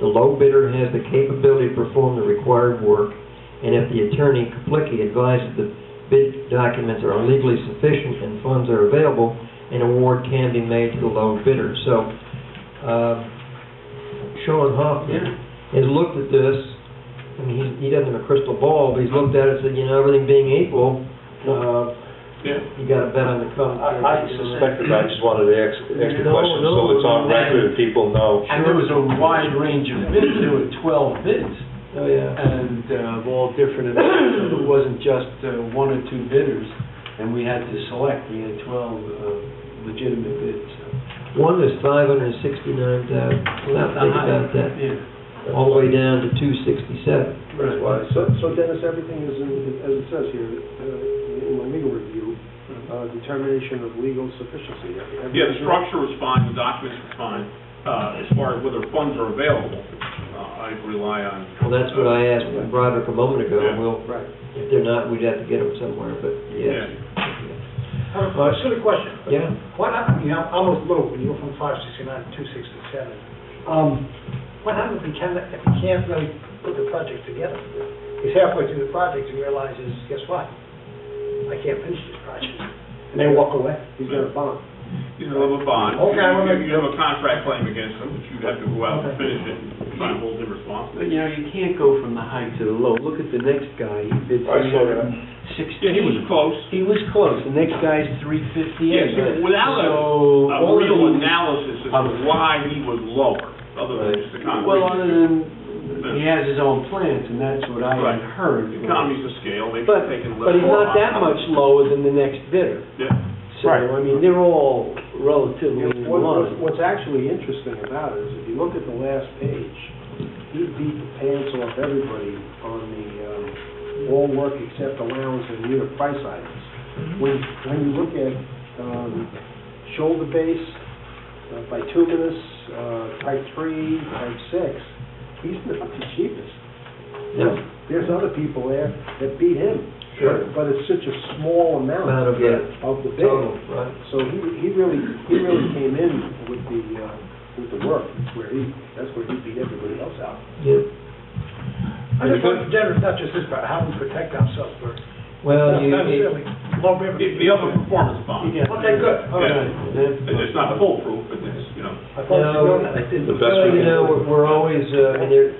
the low bidder has the capability to perform the required work, and if the attorney completely advises the bid documents are legally sufficient and funds are available, an award can be made to the low bidder. So, uh, Sean Hoffman has looked at this, I mean, he's- he doesn't have a crystal ball, but he's looked at it and said, you know, everything being equal, uh, Yeah. you gotta bet on the company. I I suspected, I just wanted to ask, ask the No, question, so no, it's on no. record and people know. And there was a wide range of bids, there were twelve bids, Oh, yeah. and uh, of all different, amounts. it wasn't just uh, one or two bidders, and we had to select, we had twelve uh, legitimate bids. One is five hundred and sixty-nine thousand, well, now think about that, Yeah, all the way down to two sixty-seven. right. So so Dennis, everything is in, as it says here, uh, in my legal review, uh, determination of legal sufficiency. Mm-hmm. Yeah, the structure was fine, the documents were fine, uh, as far as whether funds are available, uh, I rely on. Well, that's what I asked Broderick a moment ago, Yeah. well, Right. if they're not, we'd have to get them somewhere, but, yes. Uh, Silly question. but Yeah. What, hap- you know, I was low, when you go from five sixty-nine to two sixty-seven. Um, what happens if we can't, if we can't really put the project together? He's halfway through the project and realizes, guess what? I can't finish this project. And they walk away. He's got a bond. You know, of a bond. Okay, I wanna- You you have a contract claim against them, which you'd have to go out and finish it, and try to hold them responsible. But, you know, you can't go from the high to the low. Look at the next guy, he bid I three saw hundred that. and sixteen. Yeah, he was close. He was close, the next guy's three fifty-eight. Yes, but without a- So, A all real the- analysis as to why he was lower, other than just the Well, other concrete. than, he has his own plans, and that's what I Right. had heard. The Economies of scale, they've But, taken a little. but he's not that much lower than the next bidder. Yeah. So, I mean, they're all relatively in What- what- line. What's actually interesting about it is if you look at the last page, he beat the pants off everybody on the, um, all work except allowance and unit price items. When, when you look at um, shoulder base, uh, bituminous, uh, type three, type six, he's not the cheapest. No. There's other people there that beat him. Sure. But it's such a small amount Amount of the- of the bid. Total, right? So he, he really, he really came in with the, uh, with the work, where he, that's where he beat everybody else out. Yeah. I just want, Denver, not just this, but how we protect ourselves for, Well, not Uh, you, it- necessarily, low The river. the other performance bond. Yeah. Okay, good, all right. It's just not foolproof, but it's, you know. I thought you were on that. I didn't. The best well, we you can know, do. we're- we're always, uh, and there, i-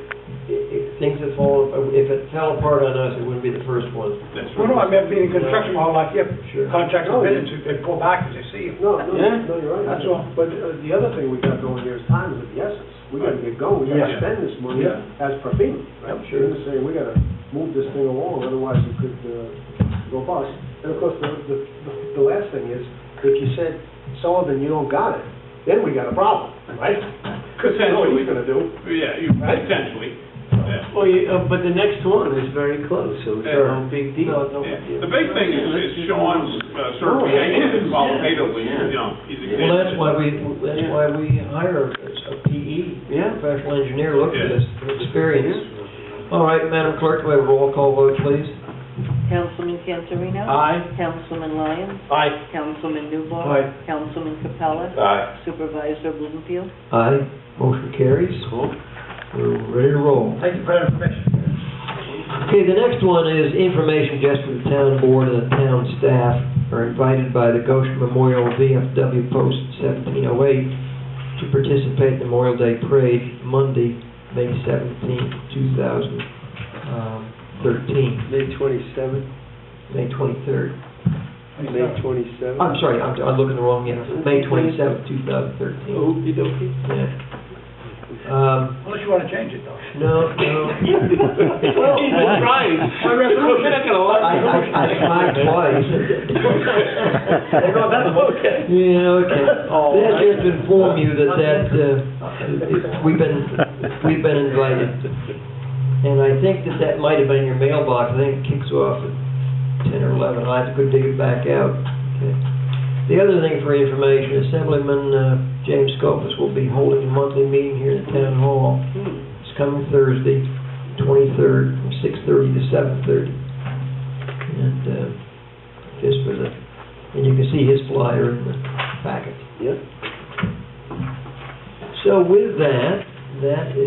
i- things that fall, if it fell apart on us, it wouldn't be the first one. that's Well, no, I mean, being in construction my whole life, yeah, Sure. contracts are bidding, they pull back because they see you. Oh, No, no, Yeah. no, you're right. That's all. But uh, the other thing we got going here is time is of the essence. We gotta get going, we gotta Yeah. spend this money Yeah. as per FEMA. Yep, We're sure. gonna say, we gotta move this thing along, otherwise it could, uh, go bust. And of course, the, the, the last thing is, if you said, Sullivan, you don't got it, then we got a problem, right? Cause you know what he's gonna do. Yeah, you- potentially. Yeah. Well, you, uh, but the next one is very close, so it's Yeah. no big No, deal. no. Yeah. The big thing is is Sean's uh, Oh, certification qualitatively, you know, he's Well, that's existed. why we, that's why we hire a PE, Yeah. professional engineer, look at this experience. All right, Madam Clerk, do we have a roll call vote, please? Councilman Cantorino? Aye. Councilman Lyons? Aye. Councilman Newbar? Aye. Councilman Capella? Aye. Supervisor Bloomfield? Aye, motion carries. We're ready to roll. Thank you for that information. Okay, the next one is information just for the town board and the town staff are invited by the Goshen Memorial VFW Post 1708 to participate in the Memorial Day Parade Monday, May 17, 2013, May twenty-seventh, um, May 23rd. May twenty-seventh. I'm sorry, I'm I'm looking the wrong, yeah, May 27, 2013. Okie dokie. Yeah. Um, Unless you want to change it, though. No, no. Well, he's trying. We're not gonna I, let I, I tried twice. Yeah, okay. Oh, That's just to inform you that that, uh, we've been, we've been invited. And I think that that might have been your mailbox, I think it kicks off at ten or eleven, I have to go dig it back out. Okay. The other thing for information, Assemblyman, uh, James Scopus will be holding a monthly meeting here at the town hall. Hmm. It's coming Thursday, twenty-third, from six-thirty to seven-thirty. And, uh, just for the, and you can see his flyer in the packet. Yep. So with that, that is.